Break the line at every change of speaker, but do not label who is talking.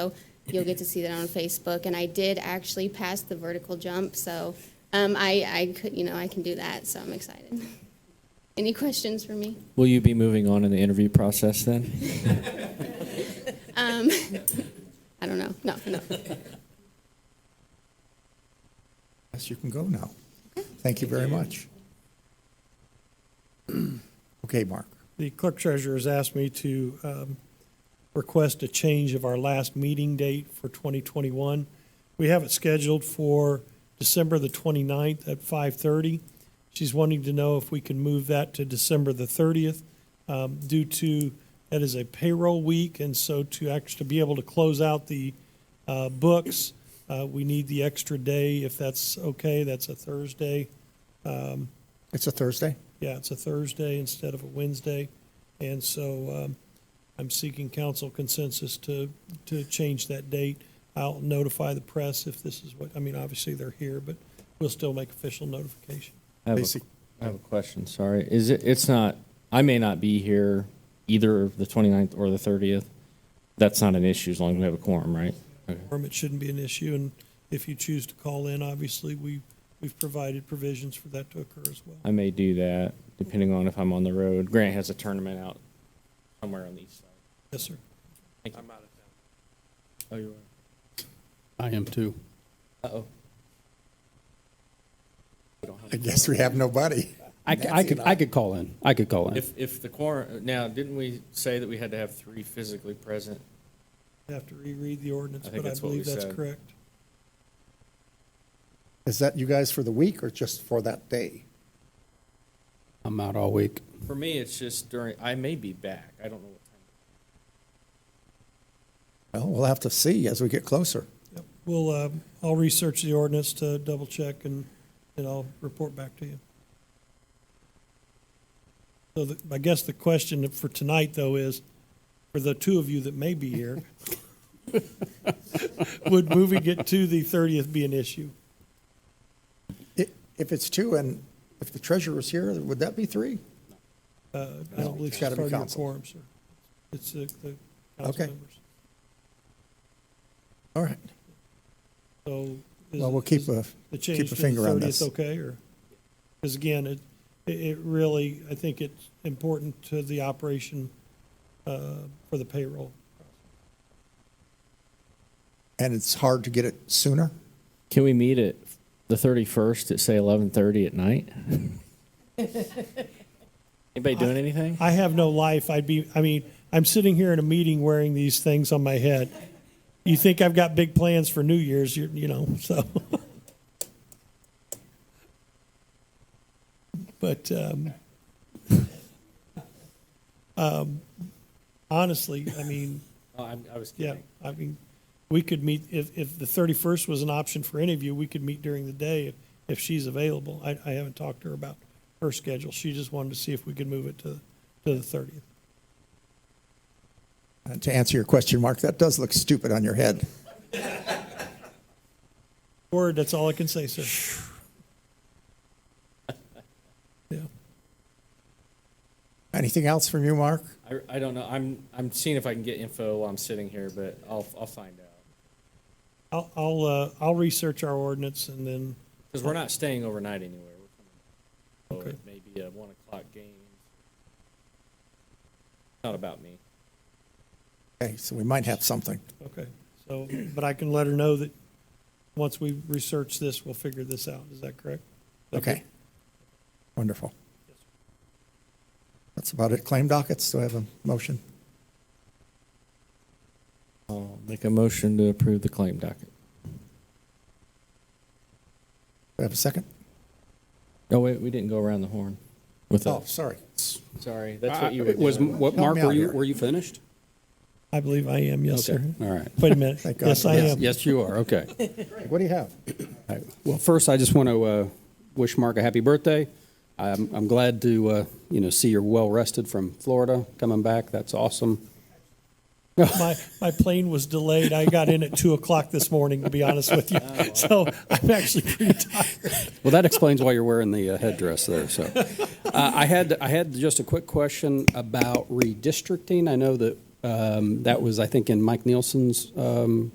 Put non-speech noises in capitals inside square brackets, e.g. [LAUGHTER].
So you'll get to see that on Facebook. And I did actually pass the vertical jump, so um, I, I could, you know, I can do that, so I'm excited. [LAUGHS] Any questions for me?
Will you be moving on in the interview process then?
I don't know. No, no.
Yes, you can go now. Thank you very much. [CLEARS THROAT] Okay, Mark.
The clerk treasurer has asked me to um, request a change of our last meeting date for 2021. We have it scheduled for December the 29th at 5:30. She's wanting to know if we can move that to December the 30th um, due to, that is a payroll week, and so to actually be able to close out the uh, books, uh, we need the extra day, if that's okay, that's a Thursday.
It's a Thursday?
Yeah, it's a Thursday instead of a Wednesday, and so um, I'm seeking council consensus to, to change that date. I'll notify the press if this is what, I mean, obviously they're here, but we'll still make official notification.
I have, a,
Basic-
I have a question. Sorry, is it? It's not. I may not be here either the 29th or the 30th. That's not an issue as long as we have a quorum, right? Okay.
Quorum, It shouldn't be an issue, and if you choose to call in, obviously, we, we've provided provisions for that to occur as well.
I may do that depending on if I'm on the road. Grant has a tournament out somewhere on the east side.
Yes, sir.
Thank you. I'm out of town. Oh, you
I am too.
are. Uh oh.
I guess we have nobody.
I, c- I could, I could call in. I could call in.
If if the quorum now didn't we say that we had to have three physically present?
I Have to reread the ordinance,
I think
but I
that's what we
believe that's
said.
correct.
Is that you guys for the week or just for that day?
I'm out all week.
For me, it's just during. I may be back. I don't know what time.
Well, we'll have to see as we get closer.
Yep. We'll, uh, I'll research the ordinance to double-check, and, and I'll report back to you. So the- I guess the question for tonight, though, is, for the two of you that may be here, would moving it to the 30th be an issue?
I- If it's two and if the treasurer's here, would that be three?
Uh, I don't believe
it's
it's
gotta
part
be
of your
council.
quorum, sir. It's the the
Okay.
council members.
All right.
So. is-
Well, we'll keep
is-
a,
the change
keep
to
a
the
finger on
thirtieth
this.
okay, or, because again, it, it it really, I think it's important to the operation uh, for the payroll.
And it's hard to get it sooner?
Can we meet at the thirty-first at say eleven-thirty at [LAUGHS] night? Anybody doing anything?
I have no life, I'd be, I mean, I'm sitting here in a meeting wearing these things on my head. You think I've got big plans for New Year's, you, you know, so. [LAUGHS] But, um, [LAUGHS] um, honestly, I mean,
I, I was
Yeah, I mean, we could meet, if, if the thirty-first was an option for any of you, we could meet during the day if, if she's available. I, I haven't talked to her about her schedule. She just wanted to see if we could move it to, to the thirtieth.
Uh, To answer your question, Mark, that does look stupid on your head.
Word, that's all I can say, sir.
[SIGHS]
Yeah,
Anything else from you, Mark?
I, I don't know. I'm, I'm seeing if I can get info while I'm sitting here, but I'll, I'll find out.
I'll, I'll, uh, I'll research our ordinance and then,
Because we're not staying overnight anywhere. We're coming back. So
Okay.
it may be a one o'clock game. Not about me.
Okay, so we might have something.
okay, so, but I can let her know that once we research this, we'll figure this out. Is that correct?
Okay. Wonderful. That's about it. Claim dockets, do I have a motion?
I'll make a motion to approve the claim docket.
Do I have a second?
Oh, wait, we didn't go around the horn with
Oh,
us.
sorry.
Sorry, that's what you were
It Was,
doing.
what,
Help
Mark,
me
were
out
you,
here.
were you finished?
I believe I am, yes,
Okay,
sir.
All right.
Wait a
[LAUGHS]
minute.
Thank God.
Yes, I
Yes,
am.
Yes, you are. Okay.
[LAUGHS] What do you have?
All right. Well, first, I just want to uh, wish Mark a happy birthday. I'm, I'm glad to, uh, you know, see you're well rested from Florida coming back. That's awesome.
[LAUGHS] My, my plane was delayed. I got in at two o'clock this morning, to be honest with you. So I'm actually pretty tired.
Well, that explains why you're wearing the uh, headdress there. So, uh, I had I had just a quick question about redistricting. I know that Um, That was, I think, in Mike Nielsen's um,